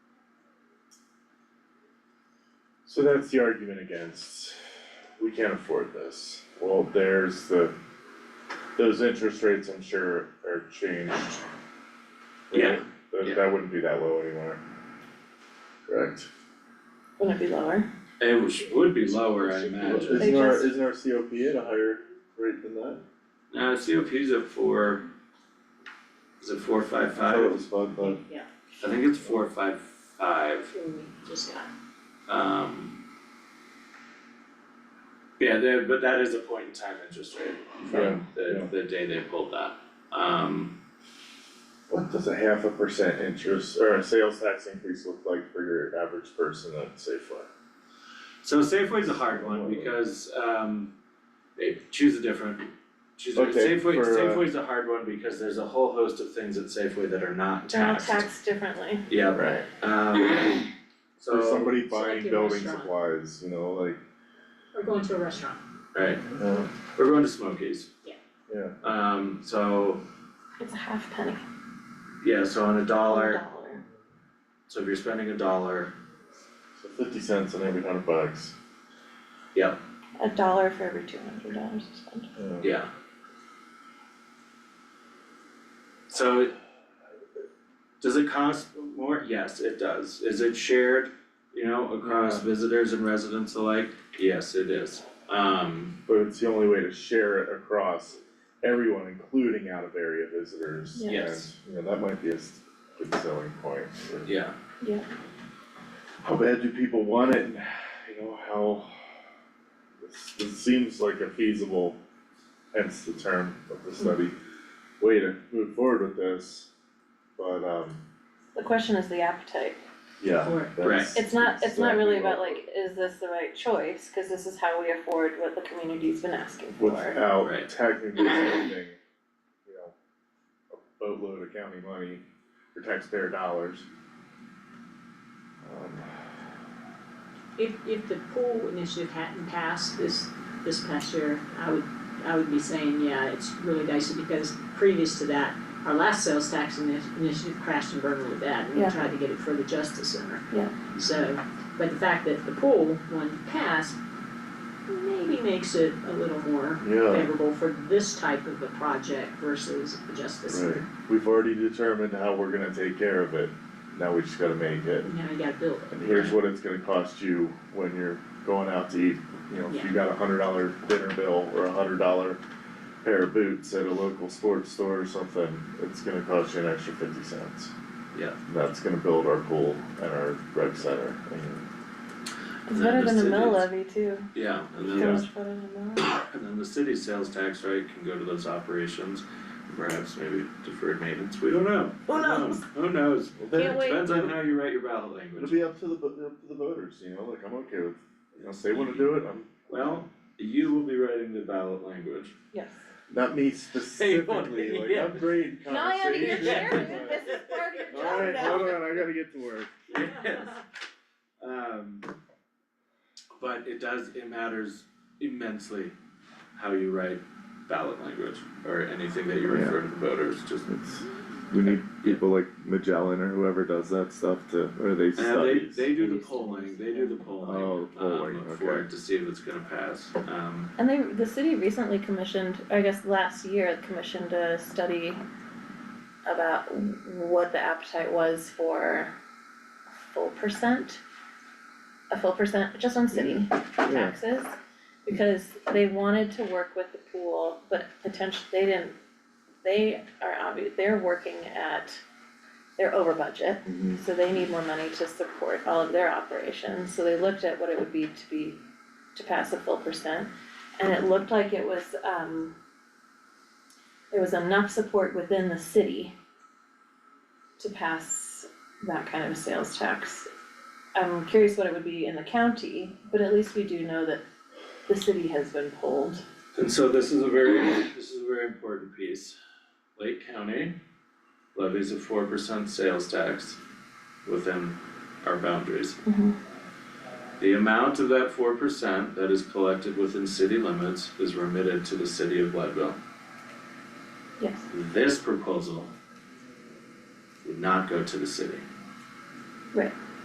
So that's the argument against, we can't afford this, well, there's the, those interest rates, I'm sure, are changed. Yeah, yeah. That that wouldn't be that low anymore. Correct. Wouldn't it be lower? It was, would be lower, I imagine. Isn't our, just- isn't our COP at a higher rate than that? Now, COP's at four. Is it four five I thought it five? was five, but Yeah, I think it's four five five, just got. um. Yeah, there, but that is a point in time interest rate from yeah. the, the day they pulled that, um, what does a half a percent interest or a sales tax increase look like for your average person at Safeway? so Safeway's a hard one because, um. They choose a different, choose a, Okay, for, Safeway, uh, Safeway's a hard one because there's a whole host of things at Safeway that are not Not taxed. taxed differently. Yeah, Right. um, so. For somebody So like buying your building restaurant. supplies, you know, like, Or going to a restaurant. Right, uh, we're going to Smokies. Yeah. Yeah. Um, so, It's a half penny, yeah, so on a dollar. dollar, so if you're spending a dollar, so fifty cents on every hundred bucks. A dollar for every two hundred dollars you spend. Yeah. yeah. So it- does it cost more? Yes, it does. Is it shared, you know, across visitors and residents alike? Yes, it is. Um, But it's the only way to share it across everyone, including out of area visitors. Yeah. Yes. And, You know, that might be a s- good selling point for yeah, how bad do people want it and you know, how this this seems like a feasible, hence the term of the study, way to move forward with this, but um, The question is the appetite. yeah, Or that's. It's not, it's not exactly really about what- like, is this the right choice? Cause this is how we afford what the community's been asking for. Without Right. technically spending, you know, a boatload of county money or taxpayer dollars. Um, if if the pool initiative hadn't passed this this past year, I would I would be saying, yeah, it's really dicey because previous to that, our last sales tax ini- initiative crashed and burned really bad and we Yeah. tried to get it for the Justice Center. Yeah. So, but the fact that the pool one passed maybe makes it a little more Yeah, favorable for this type of a project versus the Justice Center. right, we've already determined how we're gonna take care of it, now we just gotta make it. Now you gotta build it. And here's what it's gonna cost you when you're going out to eat, you know, if you got a hundred dollar dinner bill or a hundred dollar pair of boots at a local sports store or something, it's gonna cost you an extra fifty cents. Yeah. And That's gonna build our pool and our rec center and It's better than a mill It's- levy too. yeah, and So then Yeah. much better than a mill. And then the city sales tax rate can go to those operations, perhaps maybe deferred maintenance, we don't know. Who knows? Who knows? Can't wait. Depends on how you write your ballot it'll language. be up to the vo- up to the voters, you know, like I'm okay with, you know, if they wanna do it, I'm Well, you will be writing the ballot language. Yes. not me specifically, like yeah. upgrade conversation. chairman. but- is part of Alright, hold on, I gotta get to work. Um, but it does, it matters immensely how you write ballot language or anything that you refer to the voters, just. It's, we need people like Magellan or whoever does that stuff to, or they Uh, they, studies. they do the polling, they do the polling, Oh, polling, um, for okay. it to see if it's gonna pass, um. And they, the city recently commissioned, I guess last year, commissioned a study about what the appetite was for a full percent. A full percent, just on city Yeah, taxes, because they wanted to work with the pool, but potentially, they didn't. They are obvious, they're working at, they're over budget, mhm, so they need more money to support all of their operations, so they looked at what it would be to be, to pass a full percent. And it looked like it was, um, there was enough support within the city to pass that kind of sales tax. I'm curious what it would be in the county, but at least we do know that the city has been polled. And so this is a very, this is a very important piece. Lake County levies a four percent sales tax within our boundaries. The amount of that four percent that is collected within city limits is remitted to the city of Leadville. Yes. This proposal would not go to the city. Right.